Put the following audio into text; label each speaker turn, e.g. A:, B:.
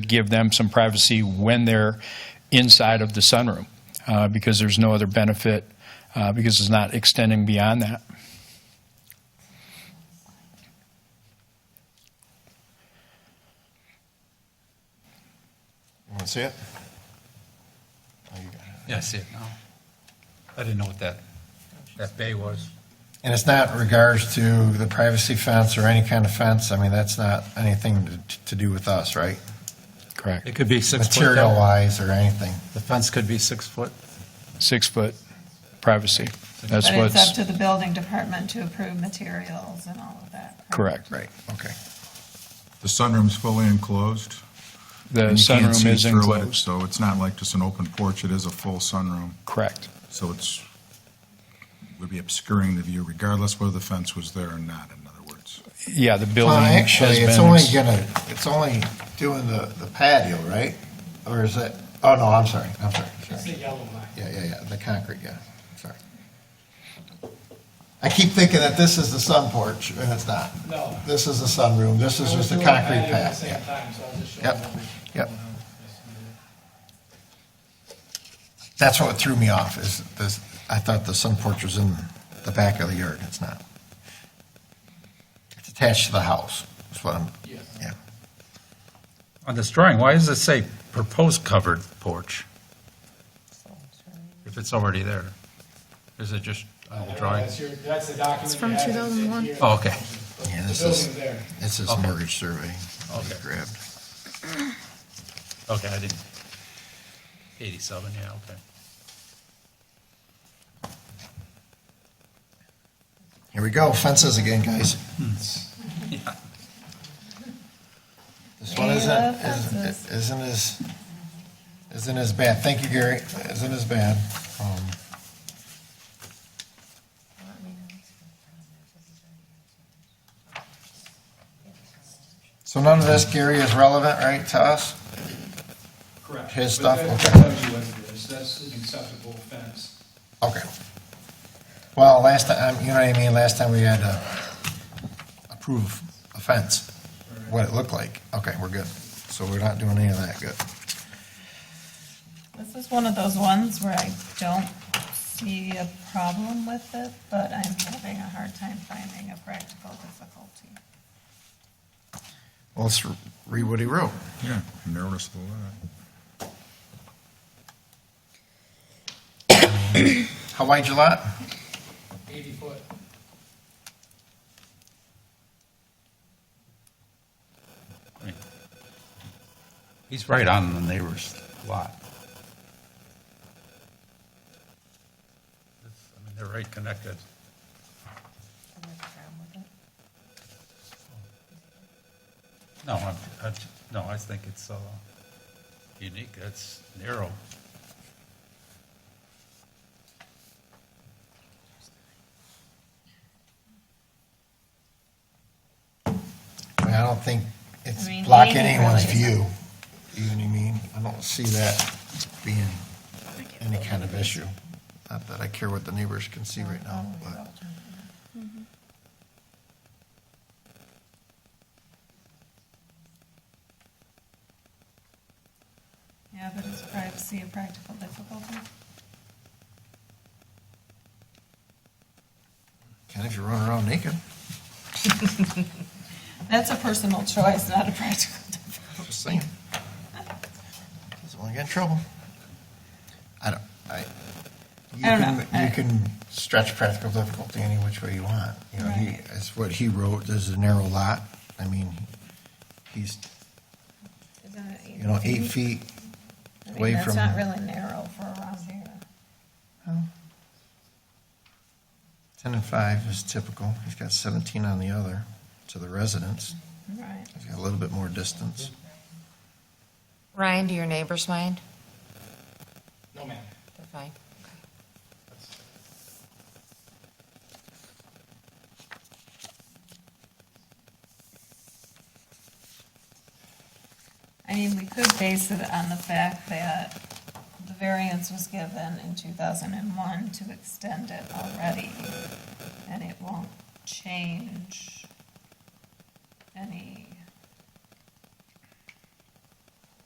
A: to give them some privacy when they're inside of the sunroom, uh, because there's no other benefit, uh, because it's not extending beyond that.
B: You want to see it? Oh, you got it.
C: Yeah, I see it now. I didn't know what that, that bay was.
B: And it's not in regards to the privacy fence or any kind of fence, I mean, that's not anything to- to do with us, right?
A: Correct.
C: It could be six foot.
B: Material-wise or anything.
C: The fence could be six foot.
A: Six-foot privacy. That's
D: But it's up
A: what's
D: to the building department to approve materials and all of that. right?
A: correct.
B: Right, okay.
E: The sunroom's fully enclosed.
A: The
E: and you can't
A: sunroom
E: see
A: is
E: through it,
A: enclosed.
E: So it's not like just an open porch, it is a full sunroom.
A: Correct.
E: So it's, would be obscuring the view regardless whether the fence was there or not, in other words.
A: Yeah, the
B: Well,
A: building has
B: actually, it's
A: been,
B: only
A: ex-
B: gonna, it's only doing the the patio, right? Or is it, oh, no, I'm sorry, I'm sorry.
F: It's the
B: sorry.
F: yellow line.
B: Yeah, yeah, yeah, the concrete, yeah, sorry. I keep thinking that this is the sun porch, and it's not.
F: No.
B: This is the sunroom, this is
F: I was
B: just the
F: doing
B: concrete
F: patio
B: pad,
F: At the same
B: yeah.
F: time, so I was just showing.
B: Yep,
F: them.
B: yep. That's what threw me off, is this, I thought the sun porch was in the back of the yard, it's not. It's attached to the house, is what I'm,
F: Yeah.
B: yeah.
C: On this drawing, why does it say proposed covered porch? If it's already there? Is it just on
F: I don't
C: the
F: know,
C: drawing?
F: That's your, that's the document.
G: It's from
F: you have.
G: 2001.
F: It's in here.
C: Oh, okay.
B: Yeah,
F: The
B: this
F: building's
B: is,
F: there.
B: this is
C: Okay.
B: mortgage survey. I
C: Okay.
B: Grabbed.
C: Okay, I didn't. 87, yeah, okay.
B: Here we go, fences again, guys. This one
D: We
B: isn't,
D: love
B: isn't-
D: fences.
B: isn't as, isn't as bad. Thank you, Gary. Isn't as bad. Um, So none of this, Gary, is relevant, right, to us?
F: Correct.
B: His
F: But
B: stuff,
F: that-
B: okay.
F: That tells you what it is. That's an acceptable fence.
B: Okay. Well, last time, you know what I mean, last time we had to approve a fence, what it looked like. Okay, we're good. So we're not doing any of that, good.
D: This is one of those ones where I don't see a problem with it, but I'm having a hard time finding a practical difficulty.
B: Well, let's read what he wrote.
E: Yeah, narrowness of the lot.
B: How wide your lot?
F: Eighty foot.
C: He's right on the neighbor's lot. It's- I mean, they're right connected. No, I'm, I'm, no, I think it's, uh, unique, it's narrow.
B: I mean, I don't think it's
D: I mean,
B: blocking
D: 80
B: anyone's
D: really
B: view. You know what I mean? I don't see that being any kind of issue. Not that I care what the neighbors can see right now, but.
A: Mm-hmm.
D: Yeah, but is privacy a practical difficulty?
B: Can if you run around naked.
D: That's a personal choice, not a practical difficulty.
B: Just saying. Doesn't want to get in trouble. I don't, I. you
D: I don't
B: can-
D: know.
B: You
D: I-
B: can stretch practical difficulty any which way you want. You know, he,
D: Right.
B: that's what he wrote, there's a narrow lot. I mean, he's, you know,
D: Mm-hmm.
B: eight feet
D: I
B: away
D: mean, that's
B: from-
D: not really narrow for around here.
B: Ten and five is typical. He's got seventeen on the other to the residence.
D: Right.
B: He's got a little bit more distance.
G: Ryan, do your neighbors mind?
F: No, ma'am.
G: They're fine.
D: I mean, we could base it on the fact that the variance was given in 2001 to extend it already, and it won't change any